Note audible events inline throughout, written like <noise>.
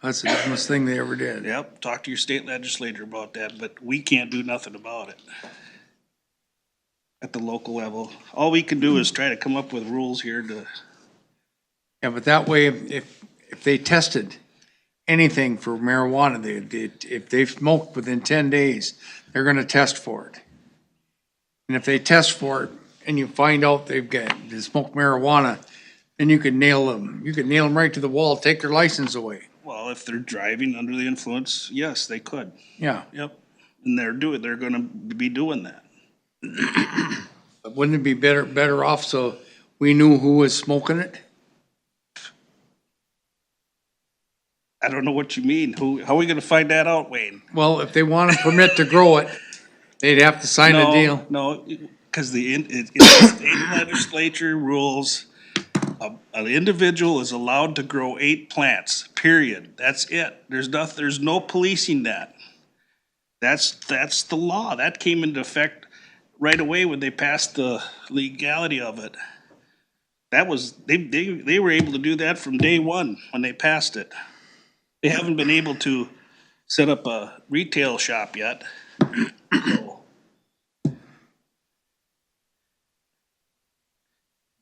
That's the dumbest thing they ever did. Yep, talk to your state legislator about that, but we can't do nothing about it. At the local level. All we can do is try to come up with rules here to, Yeah, but that way, if, if they tested anything for marijuana, they, they- if they've smoked within ten days, they're gonna test for it. And if they test for it and you find out they've got, they smoked marijuana, then you could nail them, you could nail them right to the wall, take their license away. well, if they're driving under the influence, yes, they could. Yeah, Yep. And they're doing, they're gonna be doing that. but wouldn't it be better, better off so we knew who was smoking it? I don't know what you mean. Who, how are we gonna find that out, Wayne? Well, if they want a permit to grow it, they'd have to sign a No, deal. No, because the, in- it, it's the <coughs> state legislature rules, a- an individual is allowed to grow eight plants, period. That's it. There's noth, there's no policing that. That's, that's the law. That came into effect right away when they passed the legality of it. That was, they, they, they were able to do that from day one when they passed it. They haven't been able to set up a retail shop yet. So,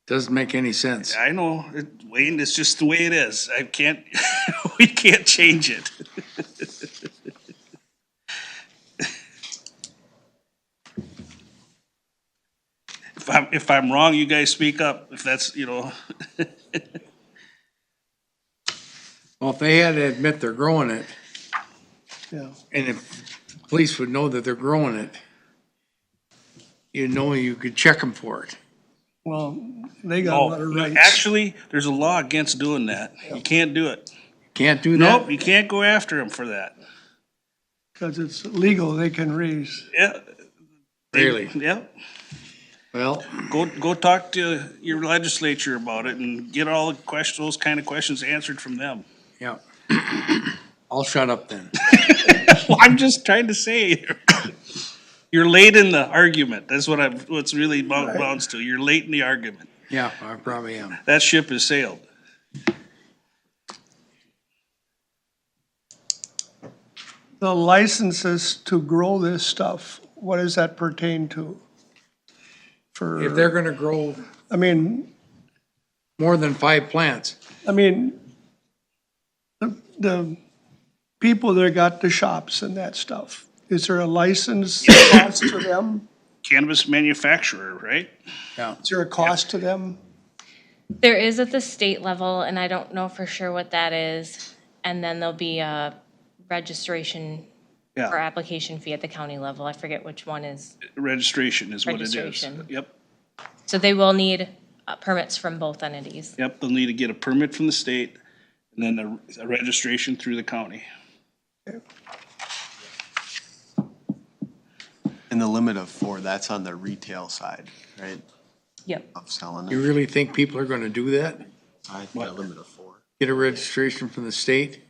Doesn't make any sense. I know, it- Wayne, it's just the way it is. I can't, <laughs> we can't change it. <laughs> If I'm, if I'm wrong, you guys speak up, if that's, you know, Well, if they had to admit they're growing it, Yeah. and if the police would know that they're growing it, you know you could check them for it. Well, they got a lot of oh, rights. actually, there's a law against doing that. You can't do it. Can't do that? Nope, you can't go after them for that. Because it's legal, they can raise. Yeah. Really? Yeah, Well, go, go talk to your legislature about it and get all the questions, those kind of questions answered from them. yeah. <coughs> I'll shut up then. Well, I'm just trying to say, <coughs> you're late in the argument. That's what I'm, what's really bo- bounds to. You're late in the argument. Yeah, I probably am. That ship has sailed. The licenses to grow this stuff, what does that pertain to? If they're For, gonna grow I mean, more than five plants, I mean, the, the people that got the shops and that stuff, is there a license cost to them? Cannabis manufacturer, right? yeah. Is there a cost to them? There is at the state level, and I don't know for sure what that is. And then there'll be a registration or Yeah, application fee at the county level. I forget which one is. registration is what it is. Registration. Yep, So they will need uh, permits from both entities. yep, they'll need to get a permit from the state and then a, a registration through the county. And the limit of four, that's on the retail side, right, Yep. of selling You it? really think people are gonna do that? I think a limit of four. Get a registration from the state?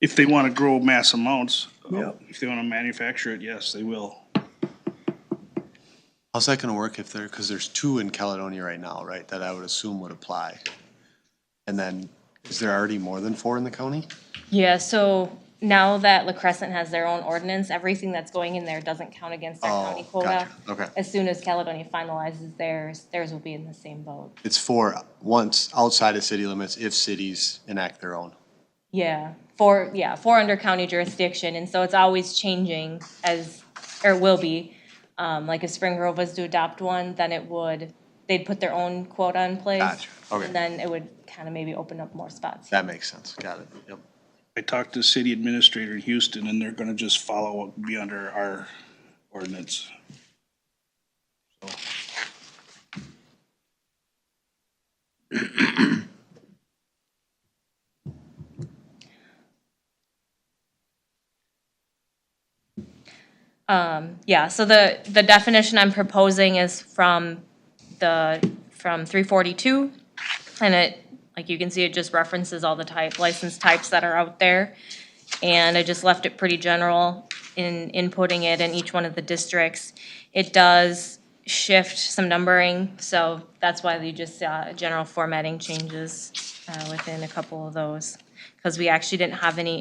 If they want to grow mass amounts, uh, Yeah. if they want to manufacture it, yes, they will. How's that gonna work if there, because there's two in Caledonia right now, right, that I would assume would apply? And then, is there already more than four in the county? Yeah, so now that La Crescent has their own ordinance, everything that's going in there doesn't count against their Oh, county quota. gotcha. Okay. As soon as Caledonia finalizes theirs, theirs will be in the same boat. It's four once outside of city limits if cities enact their own. Yeah, four, yeah, four under county jurisdiction, and so it's always changing as, or will be. Um, like if Spring Grove was to adopt one, then it would, they'd put their own quota in place. Gotcha, okay. And then it would kind of maybe open up more spots. That makes sense, got it, yep. I talked to the city administrator in Houston and they're going to just follow what would be under our ordinance. Yeah, so the, the definition I'm proposing is from the, from three forty-two. And it, like you can see, it just references all the type, license types that are out there. And I just left it pretty general in inputting it in each one of the districts. It does shift some numbering, so that's why you just saw uh, general formatting changes uh, within a couple of those. Because we actually didn't have any